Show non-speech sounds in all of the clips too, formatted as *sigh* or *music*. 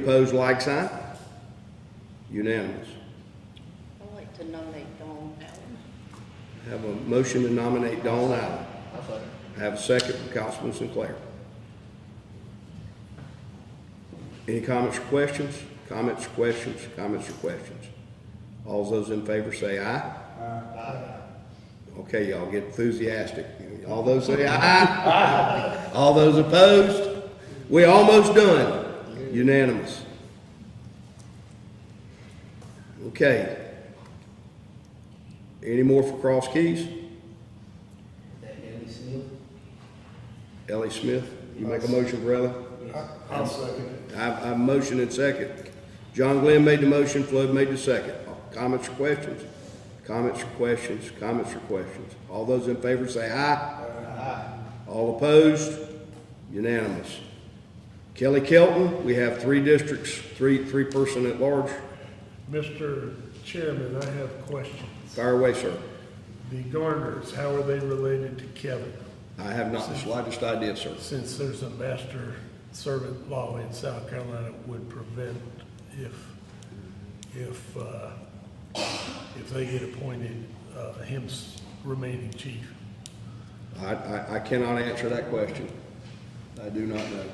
Opposed, like sign? Unanimous. I'd like to nominate Dawn Allen. Have a motion to nominate Dawn Allen. Have a second from Councilman Sinclair. Any comments or questions? Comments or questions? Comments or questions? All those in favor say aye. Aye. Okay, y'all get enthusiastic. All those say aye. Aye. *laughs* All those opposed? We almost done. Unanimous. Okay. Any more for Cross Keys? That Ellie Smith? Ellie Smith, you make a motion for Ellie? I'll second I, I motion and second. John Glenn made the motion, Flood made the second. Comments or questions? Comments or questions? Comments or questions? All those in favor say aye. All opposed? Unanimous. Kelly Kelton, we have three districts, three, three person at large. Mr. Chairman, I have a question. Fire away, sir. The Garners, how are they related to Kevin? I have not the slightest idea, sir. Since there's a master servant law in South Carolina that would prevent if, if, uh, if they get appointed, uh, him s- remaining chief. I, I, I cannot answer that question. I do not know.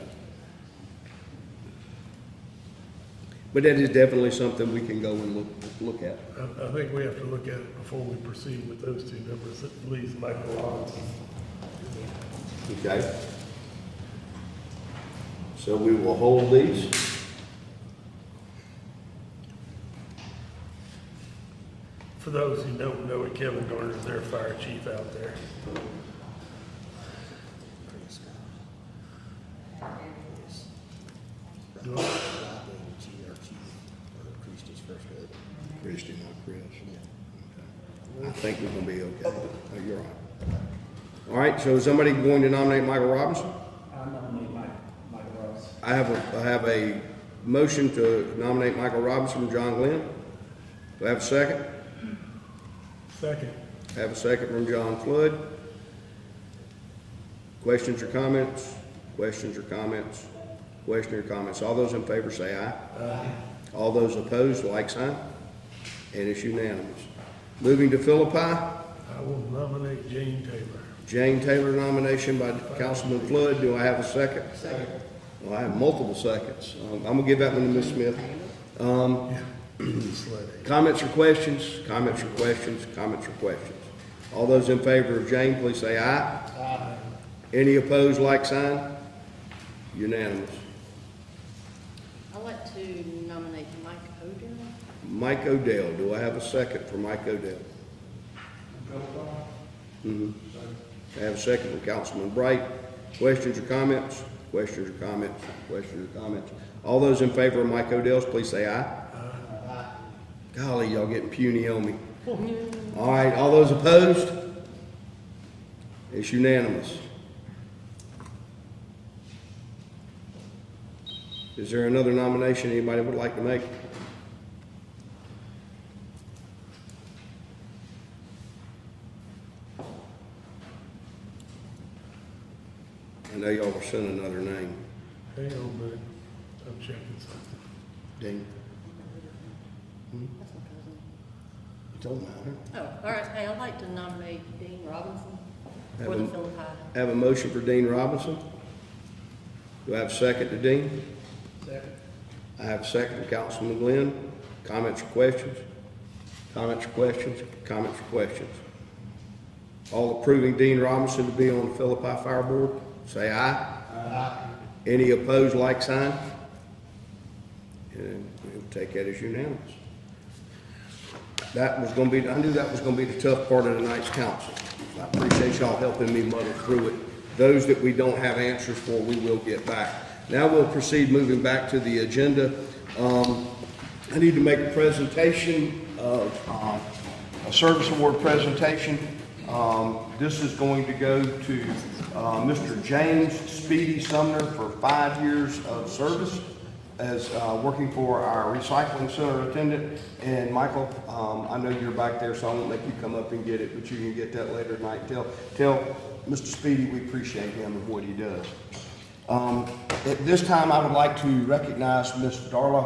But that is definitely something we can go and look, look at. I, I think we have to look at it before we proceed with those two numbers, at least Michael Rollins. Okay? So we will hold these. For those who don't know it, Kevin Garner is their fire chief out there. Do I- Christie, not Chris. Okay. I think we're gonna be okay. Oh, You're all right. All right, so is somebody going to nominate Michael Robinson? I'm nominating Mike, Mike Ross. I have a, I have a motion to nominate Michael Robinson from John Glenn. Do I have a second? Second, Have a second from John Flood. Questions or comments? Questions or comments? Question or comments? All those in favor say aye. Aye. All those opposed, like sign. And it's unanimous. Moving to Philippi, I will nominate Jane Taylor. Jane Taylor nomination by Councilman Flood. Do I have a second? Second. Well, I have multiple seconds. Um, I'm gonna give that one to Ms. Smith. Um, Just let it. comments or questions? Comments or questions? Comments or questions? All those in favor of Jane, please say aye. Any opposed, like sign? Unanimous. I'd like to nominate Mike Odell. Mike Odell, do I have a second for Mike Odell? Mhm. I have a second for Councilman Bright. Questions or comments? Questions or comments? Questions or comments? All those in favor of Mike Odell's, please say aye. Golly, y'all getting puny on me. All right, all those opposed? It's unanimous. Is there another nomination anybody would like to make? I know y'all were sending another name. Hang on a minute, I'm checking something. Dean? That's my cousin. It don't matter. Oh, all right, hey, I'd like to nominate Dean Robinson Have for the him. Philippi. I Have a motion for Dean Robinson. Do I have a second to Dean? Second. I have a second to Councilman Glenn. Comments or questions? Comments or questions? Comments or questions? All approving Dean Robinson to be on the Philippi Fire Board, say aye. Aye. Any opposed, like sign? And we'll take that as unanimous. That was gonna be, I knew that was gonna be the tough part of tonight's council. I appreciate y'all helping me muddle through it. Those that we don't have answers for, we will get back. Now we'll proceed moving back to the agenda. Um, I need to make a presentation of, um, a service award presentation. Um, this is going to go to, uh, Mr. James Speedy Sumner for five years of service as uh, working for our recycling center attendant. And Michael, um, I know you're back there, so I won't make you come up and get it, but you can get that later tonight. Tell, tell Mr. Speedy we appreciate him and what he does. Um, At this time, I would like to recognize Ms. Darla